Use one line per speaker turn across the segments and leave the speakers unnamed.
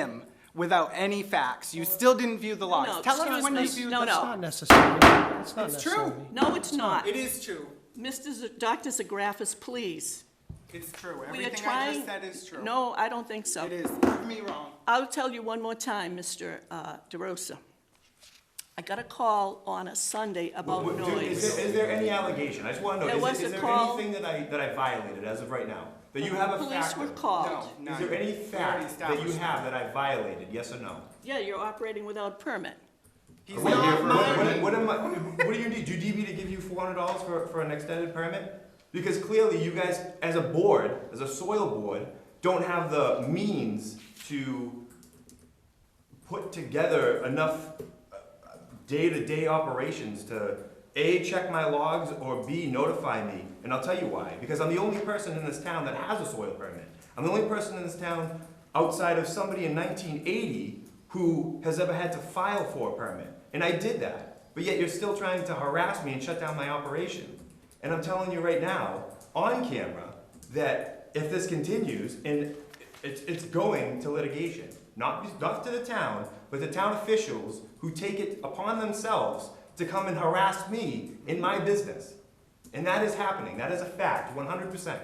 him without any facts. You still didn't view the logs.
no,
Tell us
excuse
when you
me.
viewed
No,
the.
no.
Not necessary. It's not
It's true.
necessary.
No, it's not.
It is true.
Mr. Z- Dr. Zagrafis, please.
It's true.
We are
Everything I
trying.
just said is true.
No, I don't think so.
It is. Prove me wrong.
I'll tell you one more time, Mr. uh, DeRosa. I got a call on a Sunday about
Wh- do- Is
noise.
there, is there any allegation? I just want to
There
know,
was
is, is
a
there
call.
anything that I, that I violated as of right now? That you have a
Police
fact
were
of?
called.
No, none.
Is there
We
any
already
fact that you
established
have that I violated, yes or no?
Yeah, you're operating without a permit.
He's
What,
not
what- what-
lying.
what am I, what do you need? Do you need me to give you four hundred dollars for, for an extended permit? Because clearly you guys, as a board, as a soil board, don't have the means to put together enough uh, day-to-day operations to A, check my logs, or B, notify me. And I'll tell you why, because I'm the only person in this town that has a soil permit. I'm the only person in this town outside of somebody in nineteen eighty who has ever had to file for a permit. And I did that, but yet you're still trying to harass me and shut down my operation. And I'm telling you right now, on camera, that if this continues, and it's, it's going to litigation, not, not to the town, but the town officials who take it upon themselves to come and harass me in my business. And that is happening, that is a fact, one hundred percent.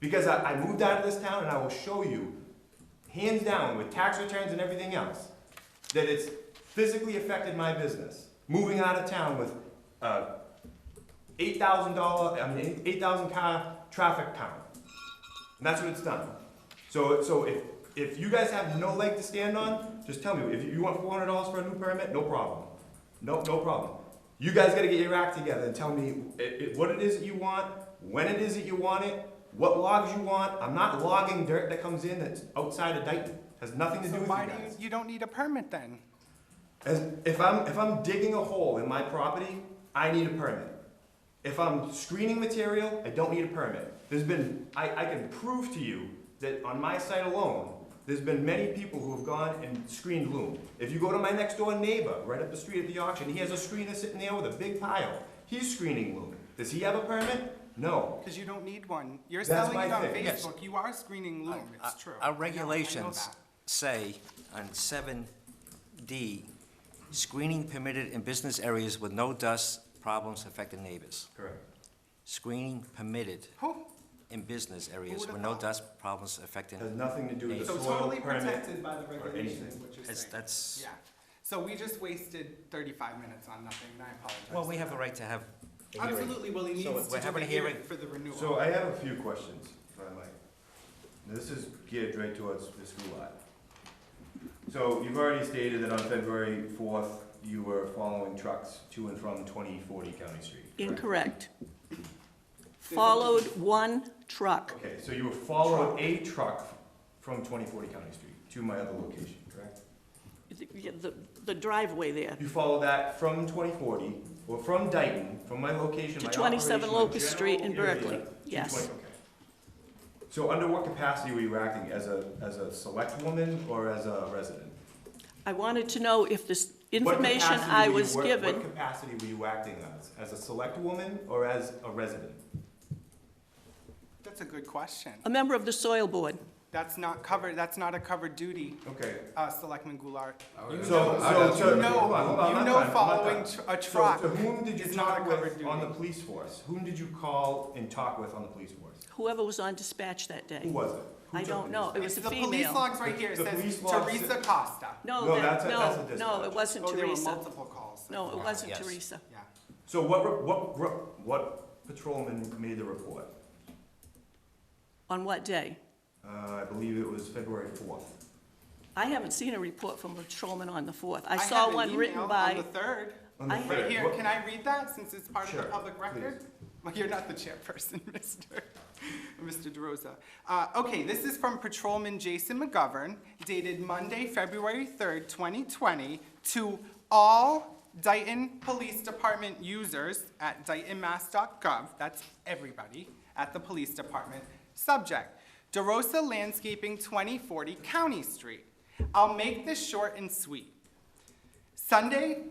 Because I, I moved out of this town and I will show you, hands down, with tax returns and everything else, that it's physically affected my business. Moving out of town with, uh, eight thousand dollar, I mean, eight thousand car traffic count. And that's what it's done. So, so if, if you guys have no leg to stand on, just tell me, if you want four hundred dollars for a new permit, no problem. No, no problem. You guys gotta get your act together and tell me i- i- what it is that you want, when it is that you want it, what logs you want. I'm not logging dirt that comes in that's outside of Dayton, has nothing to
So
do with you
why do you,
guys.
you don't need a permit then?
As, if I'm, if I'm digging a hole in my property, I need a permit. If I'm screening material, I don't need a permit. There's been, I, I can prove to you that on my site alone, there's been many people who have gone and screened loom. If you go to my next door neighbor, right up the street at the auction, he has a screener sitting there with a big pile. He's screening loom. Does he have a permit? No.
Because you don't need one. You're
That's
selling
my
it on
thing. Yes.
Facebook. You are screening Loom. It's
Uh,
true. I
Our
know, I know
regulations
that.
say on seven D, screening permitted in business areas with no dust problems affecting neighbors.
Correct.
Screening permitted
Who?
in business areas
would've
with no
thought?
dust problems affecting.
Has nothing to do with the
So
soil permit.
totally protected by the
or
regulations,
anything.
what you're
That's-
saying.
that's-
Yeah. So we just wasted thirty-five minutes on nothing, and I apologize.
Well, we have a right to have a hearing.
Absolutely, well, he needs
So
to
we're
do
having
the
a
hearing
hearing.
for the renewal.
So uh, I have a few questions, if I might. This is geared right towards the school lot. So you've already stated that on February fourth, you were following trucks to and from twenty forty County Street.
Incorrect.
correct?
Followed one truck.
Okay, so you were following a truck from twenty forty County Street to my other location, correct?
The- the- The driveway there.
You followed that from twenty forty, or from Dayton, from my location,
To
my
27
operation, my
Locust Street in
general area,
Berkeley.
to
Yes.
20 okay. So under what capacity were you acting, as a, as a select woman or as a resident?
I wanted to know if this
What
information
capacity
I
were you
was
wor-
given.
What capacity were you acting as? As a select woman or as a resident?
That's a good question.
A member of the soil board.
That's not covered, that's not a covered duty,
Okay.
uh, Selectman Goulart. You
So,
know-
so, so.
You
hold on, hold on,
know,
I'm
you
not
know
done, I'm not
following
done.
tr- a
So
truck
To whom did you
is not a
talk
covered
with on the
duty.
police force? Whom did you call and talk with on the police force?
Whoever was on dispatch that
Who
day.
was it? Who
I
took
don't
the
know. It
police
was a
The police
female.
logs right here it
The
says
police logs
Teresa
said-
Costa.
No,
No,
that,
that's a- that's
no,
a
no,
dispatch.
it wasn't
Oh, there were
Teresa.
multiple calls.
No, it wasn't
Yes.
Teresa.
Yeah.
So what, re- what, gr- what patrolman made the report?
On what day?
Uh, I believe it was February fourth.
I haven't seen a report from patrolman on the 4th. I
have
saw
an
one
email
written by,
On the third.
On the
I-
third.
Right here,
What-
can I read that since it's part of the
Sure,
public record? Well, you're not the chairperson, Mr. Mr. DeRosa. Uh, okay, this is from Patrolman Jason McGovern dated Monday, February third, twenty twenty, to all Dayton Police Department users at daytonmass.gov, that's everybody, at the police department. Subject, DeRosa Landscaping, twenty forty County Street. I'll make this short and sweet. Sunday,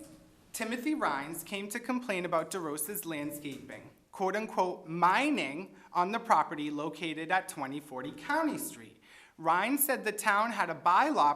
Timothy Rhines came to complain about DeRosa's landscaping, quote unquote, mining on the property located at 2040 County Street. Rhines said the town had a bylaw